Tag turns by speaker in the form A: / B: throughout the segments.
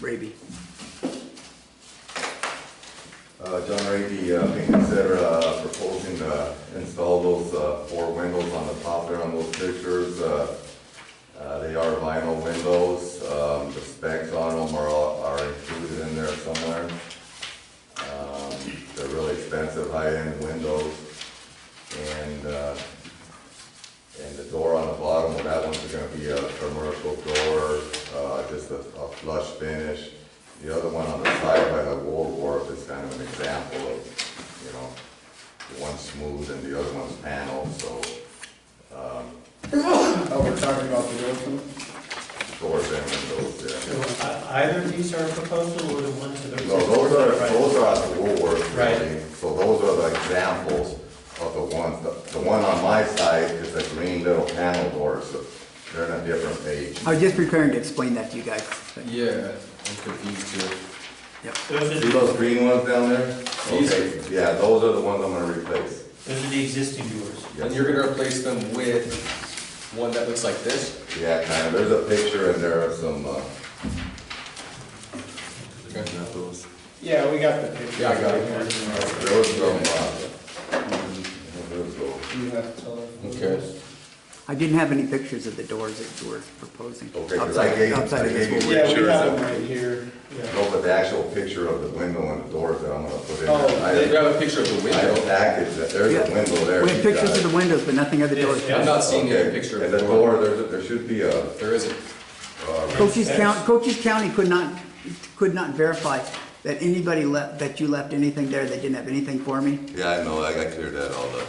A: Raby.
B: Uh, John Ray, uh being considered uh, proposing to install those uh, four windows on the top there on those pictures. Uh, uh, They are vinyl windows, Um, the specs on them are, are included in there somewhere. Um, They're really expensive, high-end windows. And, uh, and the door on the bottom of that one's gonna be a commercial door, uh, just a a flush finish. The other one on the side by the woodwork is kind of an example of, you know, one's smooth and the other one's paneled, so,
C: Oh, we're talking about the Wilson?
B: doors and windows, yeah.
D: So uh, either of these are proposal or the ones that are.
B: No, those are,
D: Right.
B: those are at the woodwork
D: Right.
B: building, so those are the examples of the ones. The- The one on my side is a green little panel door, so they're on a different page.
A: I was just preparing to explain that to you guys.
E: Yeah, I'm confused too.
A: Yep.
D: Those
B: See
D: are, the-
B: those green ones down there?
E: These
B: Okay, yeah, those are the ones I'm gonna replace.
D: those are the existing doors.
E: And you're gonna replace them with one that looks like this?
B: Yeah, kind of, there's a picture in there of some, uh,
C: Yeah, we got the picture.
E: Yeah, I got it.
B: there was some, uh, there was a-
C: You have to tell us.
E: Okay.
A: I didn't have any pictures of the doors that you were proposing.
B: Okay, 'cause I
A: outside-
B: gave-
A: outside of
B: I
A: this
B: gave you-
A: one.
C: Yeah, we have them right here. Yeah.
B: no, but the actual picture of the window and the doors that I'm gonna put in.
C: Oh,
E: I
B: I
E: grab a picture of the
B: I have a
E: window.
B: package, that- there's a
A: Yeah.
B: window there.
A: We have
B: you
A: pictures
B: got
A: of the
B: it.
A: windows, but nothing of the doors.
D: Yeah,
E: I'm not seeing
B: Okay,
E: a picture of
B: And
E: the
B: the
E: door.
B: door, there's, there should be a, uh,
E: There isn't.
A: Cochise County, Cochise County could not, could not verify that anybody left, that you left anything there that didn't have anything for me.
B: yeah, I know, I got cleared that all up.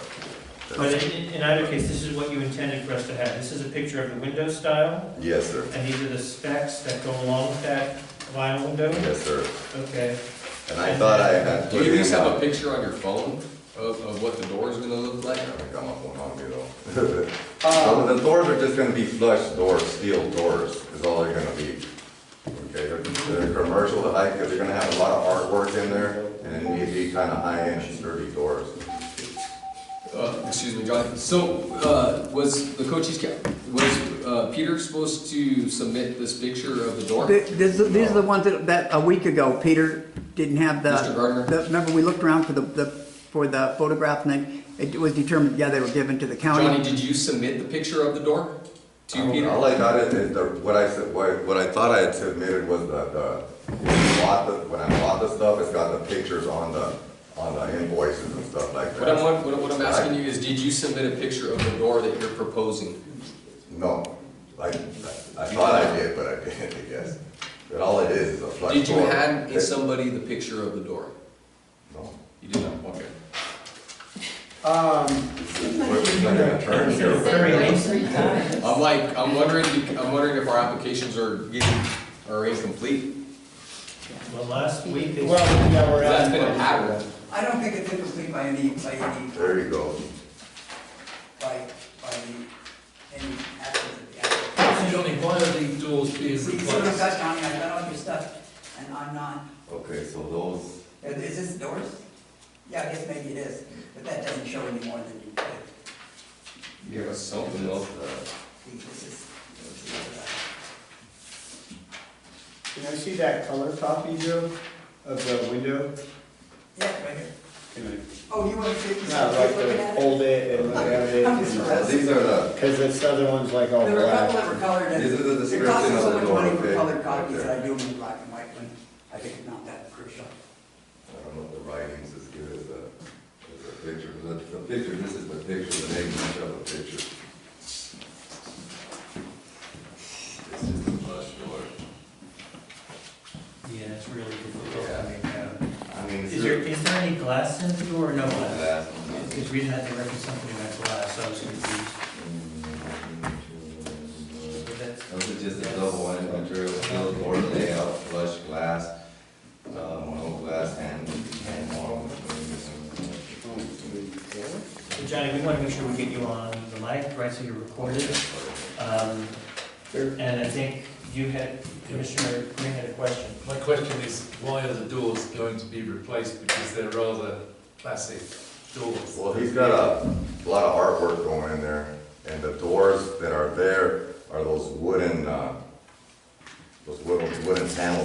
D: But in, in- in either case, this is what you intended for us to have. This is a picture of the window style,
B: Yes, sir,
D: and these are the specs that go along with that vinyl window.
B: yes, sir,
D: Okay.
B: and I thought I had. put
E: Do you at
B: in,
E: least have
B: uh,
E: a picture on your phone of, of what the door's gonna look like?
B: I haven't got my phone on me though. So the doors are just gonna be flush doors, steel doors is all they're gonna be. Okay, they're, they're commercial, they're high, because they're gonna have a lot of artwork in there and it needs to be kind of high-end sturdy doors.
E: Uh, excuse me, John. So, uh, was the Cochise County, was, uh, Peter supposed to submit this picture of the door?
A: Th- This, these are the ones that, that a week ago, Peter didn't have the.
E: Mr. Gardner?
A: the- Remember, we looked around for the, the, for the photograph and then it was determined, yeah, they were given to the county.
E: Johnny, did you submit the picture of the door to
B: I don't-
E: Peter?
B: All I got is, is the, what I said, what, what I thought I had submitted was the, the, when I bought the- when I bought the stuff, it's got the pictures on the, on the invoices and stuff like
E: What I'm,
B: that.
E: what I'm- what I'm asking you is, did you submit a picture of the door that you're proposing?
B: No, I, I I thought I did, but I didn't, I guess. But all it is is a flush door.
E: Did you hand
B: It-
E: somebody the picture of the door?
B: No.
E: You did not, okay.
C: Um,
D: Very nice.
E: I'm like, I'm wondering, I'm wondering if our applications are getting, are incomplete.
D: Well, last week, they,
C: well, yeah, we're
E: That's
C: at.
E: been a pattern.
F: I don't think it's incomplete by any, by any,
B: There you go.
F: by, by any, any accident.
G: Johnny, why are these doors being
F: See, so I've
G: replaced?
F: got, Johnny, I've got all your stuff, and I'm not,
B: Okay, so those,
F: is this doors? Yeah, I guess maybe it is, but that doesn't show any more than you could.
E: Give us something else. uh,
F: See, this is, uh,
C: Can I see that color copy, Joe, of the window?
F: yeah, right here.
C: Can
F: Oh, you want to see,
C: I,
F: you
C: not
F: start
C: like
F: looking
C: to
F: at it?
C: hold it and look at
F: I'm just
C: it?
B: uh, these are the,
C: Cause this other one's like all
F: There were a couple
C: black.
F: that were colored, and
B: This is the
F: it
B: description
F: costs
B: of
F: so
B: the
F: much
B: door,
F: money for
B: okay?
F: colored copies
B: Right
F: that I do them in black and white, when I think it's not that crucial.
B: I don't know if the writing's as good as the, as the picture. The, the picture, this is the picture, the name of the picture. This is the flush door.
D: yeah, it's really difficult to make out.
B: I mean,
D: Is there, is there any glass in the door or no glass?
B: Glass.
D: Because we didn't have to reference something about glass, so I was confused.
B: Those
D: But that's-
B: are just a double one material, steel door layout, flush glass, uh, mono glass and, and mono.
D: So Johnny, we want to make sure we get you on the mic, right, so you're recorded. Um, And I think you had, Commissioner Green had a question.
G: My question is, why are the doors going to be replaced? Because they're rather classic doors.
B: Well, he's got a lot of artwork going in there, and the doors that are there are those wooden, uh, those wooden, wooden panel